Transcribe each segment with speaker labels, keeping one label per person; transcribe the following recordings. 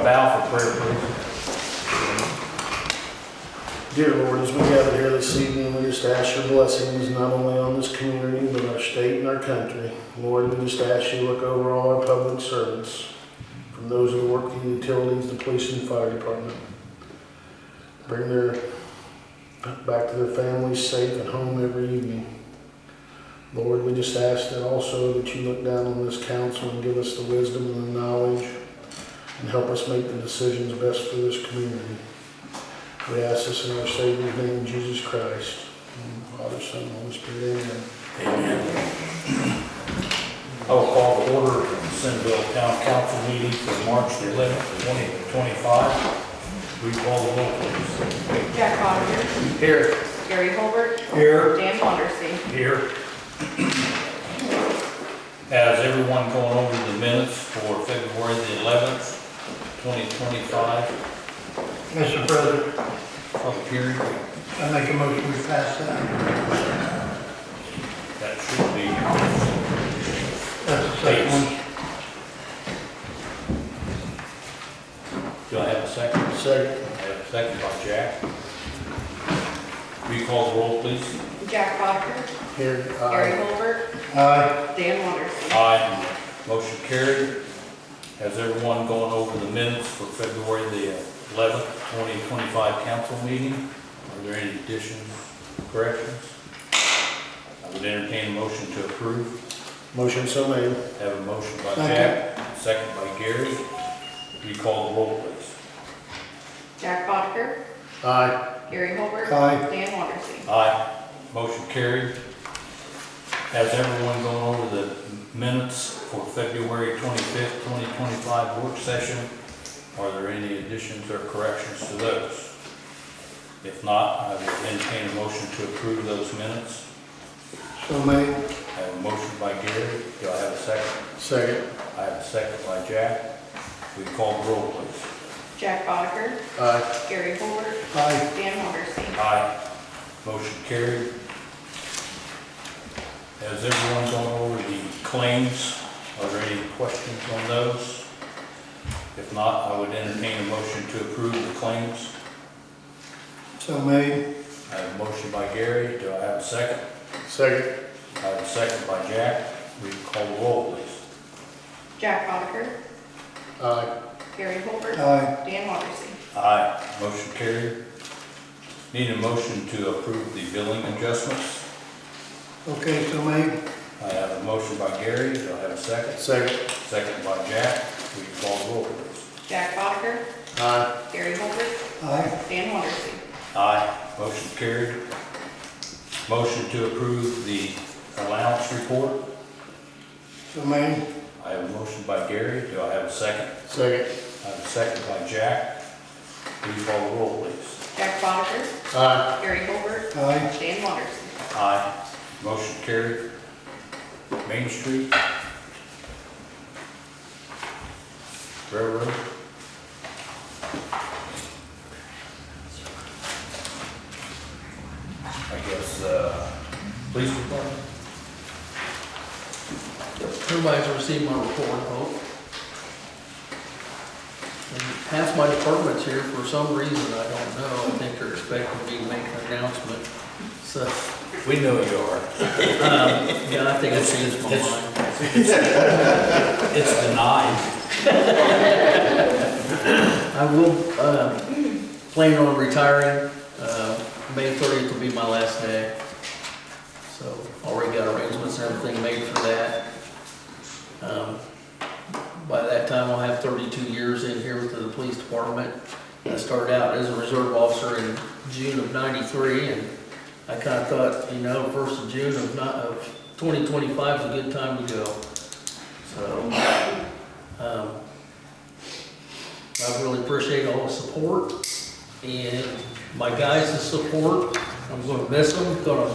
Speaker 1: prayer, please.
Speaker 2: Dear Lord, as we gather here this evening, we just ask your blessings not only on this community, but our state and our country. Lord, we just ask you to look over all our public servants, from those who work in the utilities, the police and fire department. Bring their, back to their families safe and home every evening. Lord, we just ask that also that you look down on this council and give us the wisdom and the knowledge and help us make the decisions best for this community. We ask this in our Savior's name, Jesus Christ. In Father, Son, and Holy Spirit, amen.
Speaker 1: I'll call the order of the Centerville Town Council meeting for March the 11th, 2025. We call the roll, please.
Speaker 3: Jack Botter,
Speaker 1: Here.
Speaker 3: Gary Holbert,
Speaker 1: Here.
Speaker 3: Dan Wondersen.
Speaker 1: Here. Has everyone gone over the minutes for February the 11th, 2025?
Speaker 4: Mr. President,
Speaker 1: Public hearing,
Speaker 4: I make a motion we pass that.
Speaker 1: that should be.
Speaker 4: That's the second one.
Speaker 1: Do I have a second?
Speaker 2: Second,
Speaker 1: I have a second by Jack. We call the roll, please.
Speaker 3: Jack Botter,
Speaker 2: here,
Speaker 3: Gary
Speaker 2: aye.
Speaker 3: Holbert,
Speaker 4: Aye.
Speaker 3: Dan Wondersen.
Speaker 1: Aye. Motion carried. Has everyone gone over the minutes for February the 11th, 2025 council meeting? Are there any additions, corrections? I would entertain a motion to approve.
Speaker 2: Motion so made.
Speaker 1: Have a motion by Jack, second by Gary. You call the roll, please.
Speaker 3: Jack Botter,
Speaker 2: Aye.
Speaker 3: Gary Holbert,
Speaker 4: Aye.
Speaker 3: Dan Wondersen.
Speaker 1: Aye. Motion carried. Has everyone gone over the minutes for February 25th, 2025 work session? Are there any additions or corrections to those? If not, I will entertain a motion to approve those minutes.
Speaker 4: So made.
Speaker 1: I have a motion by Gary. Do I have a second?
Speaker 2: Second,
Speaker 1: I have a second by Jack. We call the roll, please.
Speaker 3: Jack Botter,
Speaker 2: aye.
Speaker 3: Gary Holbert,
Speaker 4: Aye.
Speaker 3: Dan Wondersen.
Speaker 1: Aye. Motion carried. Has everyone gone over the claims? Are there any questions on those? If not, I would entertain a motion to approve the claims.
Speaker 4: So made.
Speaker 1: I have a motion by Gary. Do I have a second?
Speaker 2: Second,
Speaker 1: I have a second by Jack. We call the roll, please.
Speaker 3: Jack Botter,
Speaker 2: aye.
Speaker 3: Gary Holbert,
Speaker 4: Aye.
Speaker 3: Dan Wondersen.
Speaker 1: Aye. Motion carried. Need a motion to approve the billing adjustments.
Speaker 4: Okay, so made.
Speaker 1: I have a motion by Gary. Do I have a second?
Speaker 2: Second,
Speaker 1: Second by Jack. We call the roll, please.
Speaker 3: Jack Botter,
Speaker 2: aye.
Speaker 3: Gary Holbert,
Speaker 4: Aye.
Speaker 3: Dan Wondersen.
Speaker 1: Aye, motion carried. Motion to approve the allowance report.
Speaker 4: So made.
Speaker 1: I have a motion by Gary, do I have a second?
Speaker 2: Second,
Speaker 1: I have a second by Jack. Please call the roll, please.
Speaker 3: Jack Botter,
Speaker 2: aye.
Speaker 3: Gary Holbert,
Speaker 4: Aye.
Speaker 3: Dan Wondersen.
Speaker 1: Aye, motion carried. Main Street. Railroad. I guess, uh, police department?
Speaker 5: Everybody's received my report, I hope. And Half my department's here for some reason, I don't know, I think they're expecting me to make an announcement, so, um,
Speaker 1: We know you are.
Speaker 5: yeah, I think I changed my
Speaker 1: It's-
Speaker 5: mind.
Speaker 1: It's denied.
Speaker 5: I will, uh, plan on retiring, uh, May thirtieth will be my last day. So, already got arrangements and everything made for that. Um, By that time, I'll have thirty-two years in here with the police department. I started out as a reserve officer in June of ninety-three, and I kinda thought, you know, first of June of not, of twenty twenty-five is a good time to go. So, um, I really appreciate all the support and my guys' support. I'm gonna miss them, gonna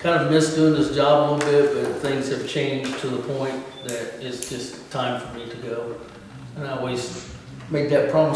Speaker 5: kind of miss doing this job a little bit, but things have changed to the point that it's just time for me to go. And I always make that promise